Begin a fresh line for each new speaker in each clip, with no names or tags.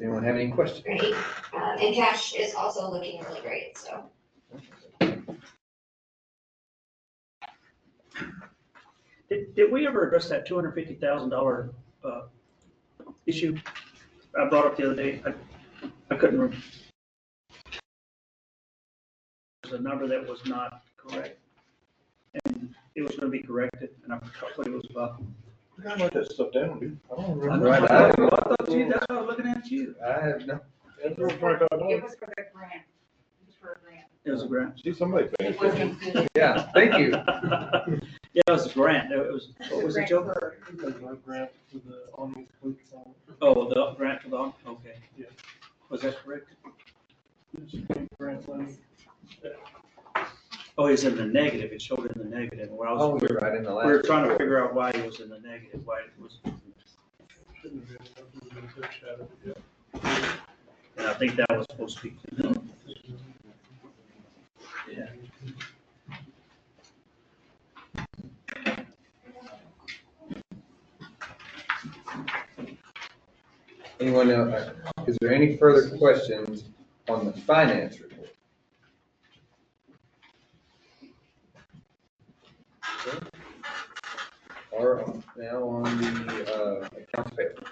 anyone have any questions?
Great. Um, and cash is also looking really great, so.
Did, did we ever address that two hundred fifty thousand dollar, uh, issue I brought up the other day? I, I couldn't remember. There's a number that was not correct. And it was gonna be corrected, and I forgot what it was about.
I gotta write that stuff down, dude. I don't
I
remember.
know, I
Right.
thought you, that's why I was looking at you.
I have no,
That's what I'm trying to find
It
out.
was for the grant. It was for a grant.
It was a grant.
See, somebody paying
It wasn't
attention.
included.
yeah, thank you.
Yeah, it was a grant. It was, what was it, Joe? Oh, the grant for the, okay.
Yeah.
Was that correct? Oh, he's in the negative, it showed in the negative, where I
Oh,
was,
you're right, in the
we
last.
were trying to figure out why he was in the negative, why it was, and I think that was supposed to be cleaned up. Yeah.
Anyone else, is there any further questions on the finance report? Or now on the, uh, accounts payable.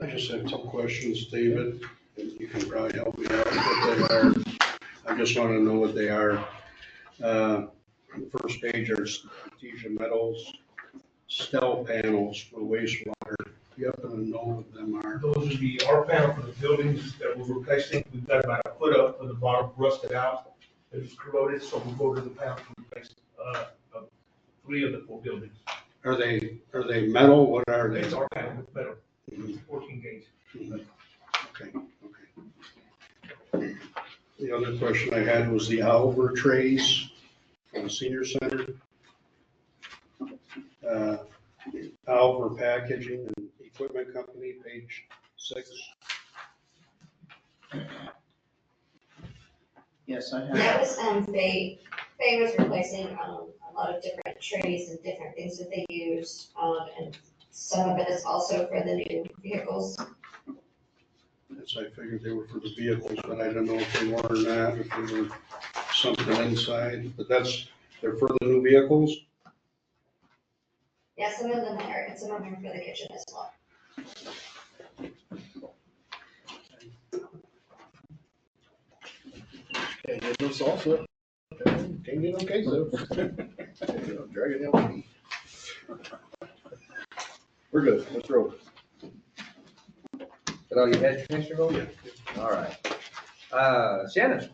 I just have two questions, David, and you can probably help me out with what they are. I just want to know what they are. Uh, on the First page are Artesia Metals, Stell Panels for wastewater. You happen to know what them are?
Those would be our panel for the buildings that we're replacing. We've got about a foot up of the bottom rusted out. It was corroded, so we'll go to the panel to replace, uh, uh, three of the four buildings.
Are they, are they metal? What are they?
It's our panel with metal,
Mhm,
fourteen gauge.
mhm. Okay, okay. The other question I had was the Oliver trays from the senior center. Uh, Oliver Packaging and Equipment Company, page six.
Yes, I
That was, um, Faye, Faye was replacing, um, a lot of different trays and different things that they use. Um, and some of it is also for the new vehicles.
As I figured they were for the vehicles, but I don't know if they were or not, if they were something inside, but that's, they're for the new vehicles?
Yeah, some of them are, and some of them are for the kitchen as well.
Can't get no salsa. Can't get no queso. Drag it down. We're good, let's roll.
Is that all you had, Commissioner Vogel? All right. Uh, Shannon?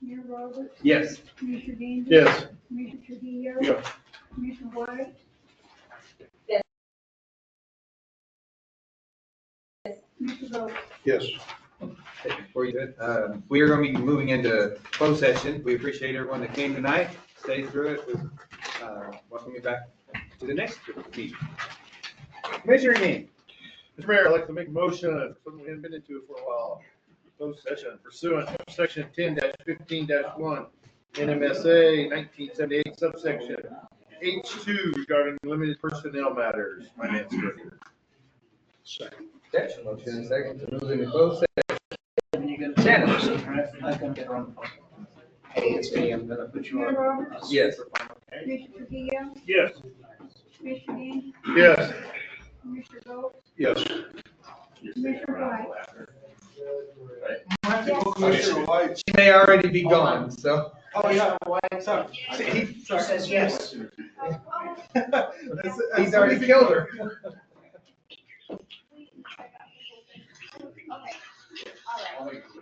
Mayor Roberts,
Yes.
Commissioner Gaines.
Yes.
Commissioner Trujillo.
Yeah.
Commissioner White.
Yes.
Commissioner Vogel.
Yes.
Before you, did, um, we are gonna be moving into closed session. We appreciate everyone that came tonight, stayed through it. We, uh, Welcome you back to the next meeting. Commissioner Gaines?
Mr. Mayor, I'd like to make a motion, uh, something we haven't been into for a while. Closed session pursuant to section ten fifteen one, NMSA nineteen seventy-eight subsection H two regarding limited personnel matters, finance director.
Second.
Okay, motion and second to move into closed session. Shannon?
I can get her on the phone.
Mayor Roberts,
Yes.
Commissioner Trujillo,
Yes.
Commissioner Gaines,
Yes.
Commissioner Vogel,
Yes.
Commissioner White.
Commissioner
She may already be gone, so.
Oh, yeah, why, sorry.
He-
She says yes.
He's already killed her.
Okay, all right.